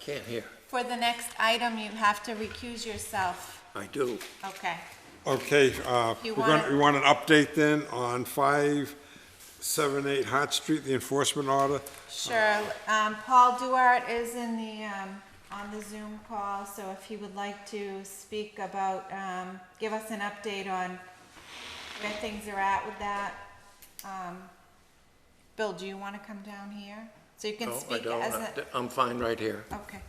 Can't hear. For the next item, you have to recuse yourself. I do. Okay. Okay, uh, You we're gonna, want- we want an update then on five, seven, eight Hart Street, the enforcement order. Sure. Um, Paul Duart is in the, um, on the Zoom call, so if he would like to speak about, um, give us an update on where things are at with that. Um, Bill, do you want to come down here? So you can No, I speak don't. as I- a, I'm fine right here. okay.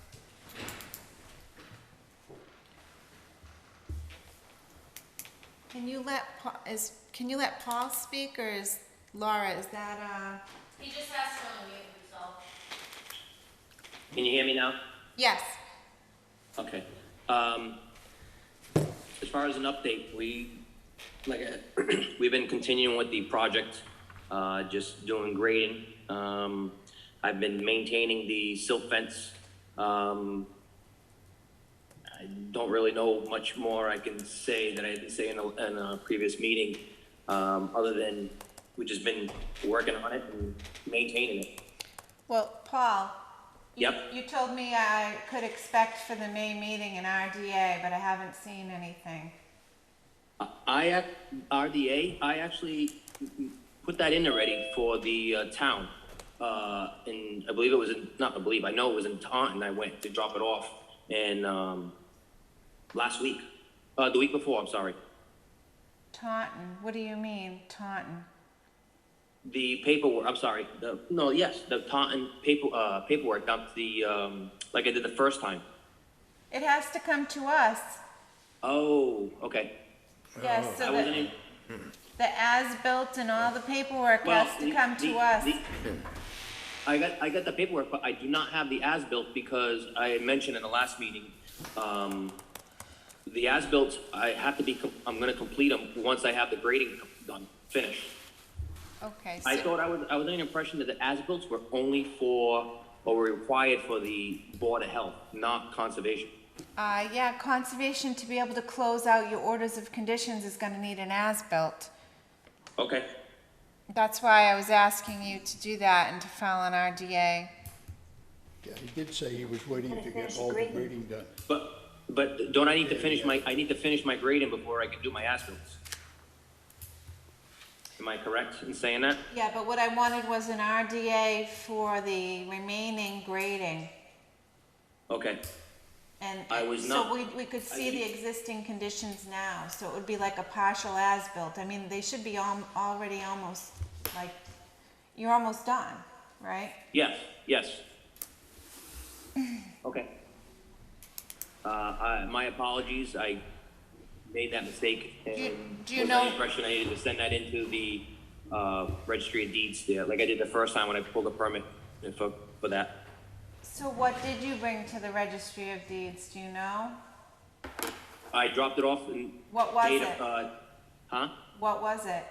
Can you let, Pa- is, can you let Paul speak, or is Laura, is that, uh, He just has to unmute himself. Can you hear me now? yes? Okay. Um, as far as an update, we, like, uh, we've been continuing with the project, uh, just doing grading. Um, I've been maintaining the silt fence. Um, I don't really know much more I can say that I didn't say in a, in a previous meeting, um, other than we've just been working on it and maintaining it. Well, Paul. you- Yep. You told me I could expect for the May meeting an RDA, but I haven't seen anything. I, ac- RDA, I actually put that in already for the uh, town. Uh, and I believe it was, in not I believe, I know it was in Taunton, I went to drop it off and, um, last week, uh, the week before, I'm sorry. Taunton, what do you mean Taunton? The paperwork, I'm sorry, the, no, yes, the Taunton paper, uh, paperwork, not the, um, like I did the first time. It has to come to us. Oh, okay. Yes, I so wasn't the, in. the as-built and all the paperwork Well, has to the- come the- to us. the- I got, I got the paperwork, but I do not have the as-built because I had mentioned in the last meeting, um, the as-built, I have to be, com- I'm gonna complete them once I have the grading done, finished. Okay, I so, thought I was, I was under the impression that the as-built were only for, or were required for the Board of Health, not conservation. uh, yeah, conservation to be able to close out your orders of conditions is gonna need an as-built. Okay, That's why I was asking you to do that and to file an RDA. Yeah, he did say he was waiting to get all the grading done. but, but don't I need to finish my, I need to finish my grading before I can do my as-bills? Am I correct in saying that? Yeah, but what I wanted was an RDA for the remaining grading. Okay. And I and was so not- we, we could see I- the existing conditions now, so it would be like a partial as-built. I mean, they should be al- already almost, like, you're almost done, right? Yes, yes. Okay. Uh, I, my apologies, I made that mistake you- and do you was under the know- impression I needed to send that into the, uh, registry of deeds there, like I did the first time when I pulled the permit for, for that. So what did you bring to the registry of deeds, do you know? I dropped it off in. What was date of, it? uh, Huh? What was it?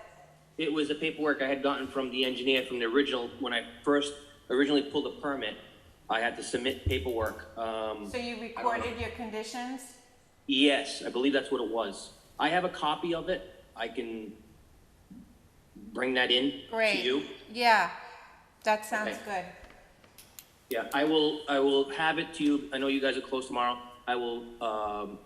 It was the paperwork I had gotten from the engineer from the original, when I first originally pulled the permit, I had to submit paperwork, um. So you I don't know. recorded your conditions? Yes, I believe that's what it was. I have a copy of it. I can bring that in to you. Yeah, that sounds Okay. good. Yeah, I will, I will have it to you. I know you guys are closed tomorrow. I will, um,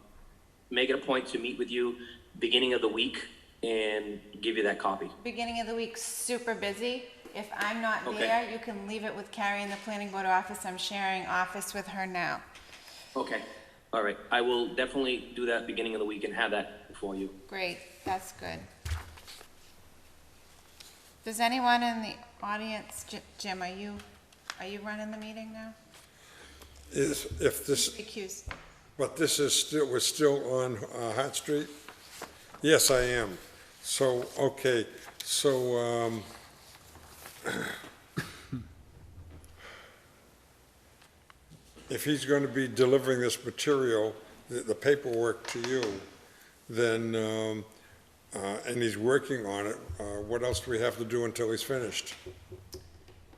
make it a point to meet with you beginning of the week and give you that copy. Beginning of the week, super busy. If I'm not Okay. there, you can leave it with Carrie in the planning board office. I'm sharing office with her now. Okay, all right. I will definitely do that beginning of the week and have that for you. Great, that's good. Does anyone in the audience, Ji- Jim, are you, are you running the meeting now? Is, if this, Recuse. but this is still, we're still on uh, Hart Street? Yes, I am. So, okay, so, um, if he's going to be delivering this material, the the paperwork to you, then, um, uh, and he's working on it, uh, what else do we have to do until he's finished?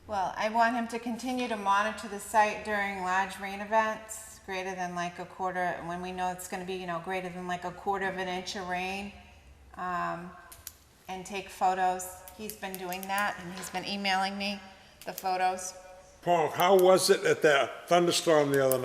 Well, I want him to continue to monitor the site during large rain events, greater than like a quarter, when we know it's gonna be, you know, greater than like a quarter of an inch of rain. Um, and take photos. He's been doing that and he's been emailing me the photos. Paul, how was it at that thunderstorm the other night?